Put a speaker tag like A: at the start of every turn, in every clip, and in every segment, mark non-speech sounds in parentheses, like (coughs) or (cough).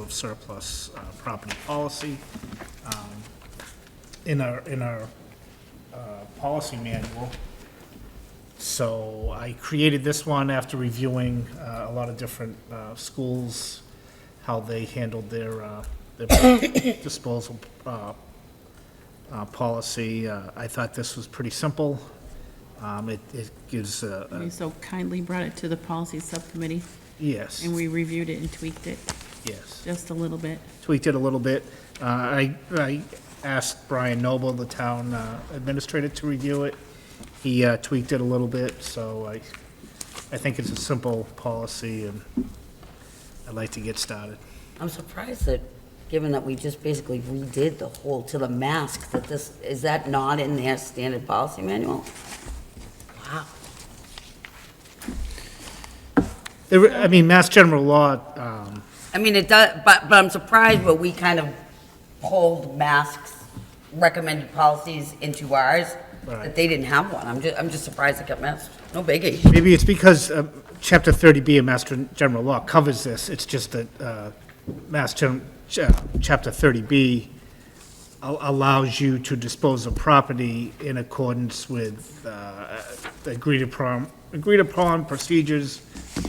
A: of surplus uh, property policy. Um, In our, in our uh, policy manual, so I created this one after reviewing uh, a lot of different uh, schools, how they handled their, uh, their (coughs) disposal uh, uh, policy. Uh, I thought this was pretty simple. Um, It it gives, a- a-
B: You so kindly brought it to the policy subcommittee,
A: yes,
B: and we reviewed it and tweaked it
A: yes.
B: just a little bit.
A: tweaked it a little bit. Uh, I, I asked Brian Noble, the town uh, administrator, to review it. He uh, tweaked it a little bit, so I, I think it's a simple policy, and I'd like to get started.
C: I'm surprised that, given that we just basically redid the whole, to the mask, that this, is that not in their standard policy manual? Wow.
A: There were- I mean, Mass General Law, um,
C: I mean, it does, but, but I'm surprised where we kind of pulled masks, recommended policies into ours,
A: Right.
C: that they didn't have one. I'm just, I'm just surprised it got missed. No biggie.
A: maybe it's because uh, Chapter 30B of Mass Gen- General Law covers this, it's just that uh, Mass Gen, Ch- uh, Chapter 30B al- allows you to dispose of property in accordance with uh, the agreed upon, agreed upon procedures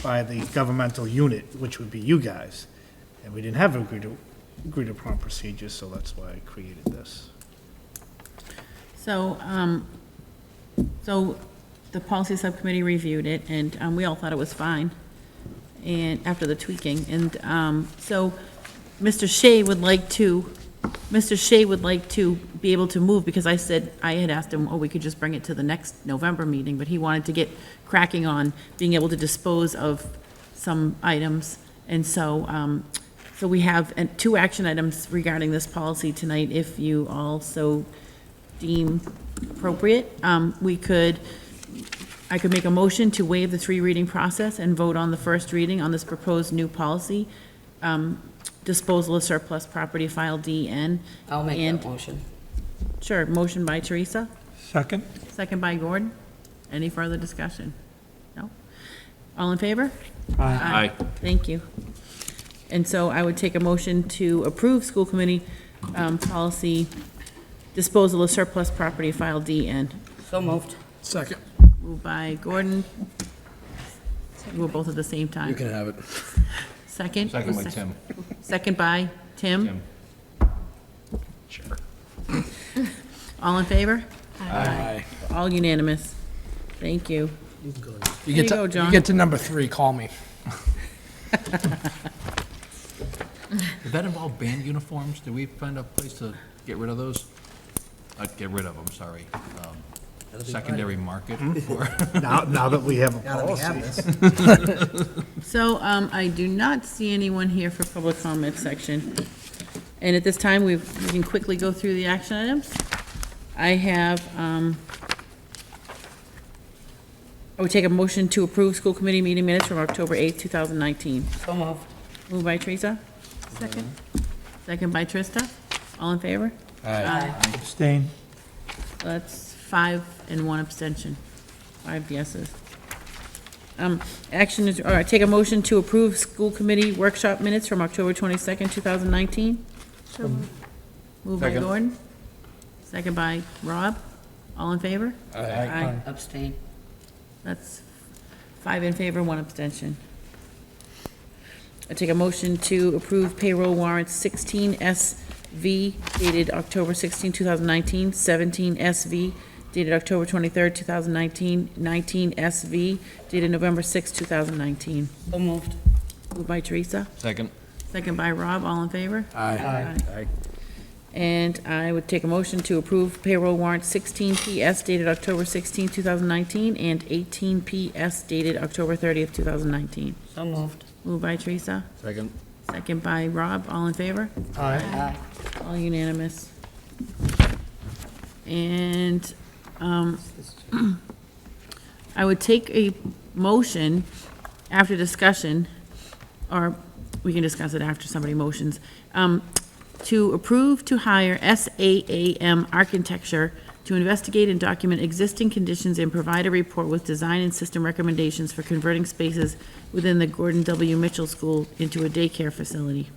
A: by the governmental unit, which would be you guys. And we didn't have agreed, agreed upon procedures, so that's why I created this.
B: So, um, so the policy subcommittee reviewed it, and, um, we all thought it was fine, and, after the tweaking, and, um, so, Mr. Shea would like to, Mr. Shea would like to be able to move, because I said, I had asked him, oh, we could just bring it to the next November meeting, but he wanted to get cracking on being able to dispose of some items, and so, um, so we have uh, two action items regarding this policy tonight, if you also deem appropriate. Um, We could, I could make a motion to waive the three reading process and vote on the first reading on this proposed new policy, um, disposal of surplus property, file DN.
C: I'll make
B: And-
C: that motion.
B: Sure, motion by Teresa,
D: Second?
B: second by Gordon. Any further discussion? No? All in favor?
E: Aye.
B: Thank you. And so I would take a motion to approve school committee um, policy disposal of surplus property, file DN.
C: So moved.
F: Second.
B: Moved by Gordon. We were both at the same time.
F: You can have it.
B: Second?
E: Second by Tim.
B: Second by Tim.
E: Tim. Sure.
B: All in favor? All unanimous. Thank you.
F: You
B: There you
F: get to-
B: go, John.
F: You get to number three, call me.
E: Did that involve band uniforms? Did we find a place to get rid of those? Uh, get rid of them, sorry. Um, Secondary market (laughs) for,
A: Now, now that we have a policy.
B: So um, I do not see anyone here for public comment section. And at this time, we we can quickly go through the action items. I have, um, I would take a motion to approve school committee meeting minutes from October 8th, 2019.
C: So moved.
B: Moved by Teresa. Second. Second by Trista. All in favor?
D: Abstain.
B: That's five and one abstention. Five yeses. Um, Action is, or take a motion to approve school committee workshop minutes from October 22nd, 2019. Moved by
D: Second.
B: Gordon. Second by Rob. All in favor? Aye.
C: Abstain.
B: That's five in favor, one abstention. I take a motion to approve payroll warrants 16SV dated October 16, 2019, 17SV dated October 23, 2019, 19SV dated November 6, 2019.
C: So moved.
B: Moved by Teresa,
E: second,
B: second by Rob, all in favor?
F: Aye.
B: Aye. And I would take a motion to approve payroll warrant 16PS dated October 16, 2019, and 18PS dated October 30th, 2019.
C: So moved.
B: Moved by Teresa,
E: second.
B: second by Rob, all in favor?
C: Aye.
B: All unanimous. And um, I would take a motion after discussion, or we can discuss it after somebody motions, um, to approve to hire SAAM Architecture to investigate and document existing conditions and provide a report with design and system recommendations for converting spaces within the Gordon W. Mitchell School into a daycare facility.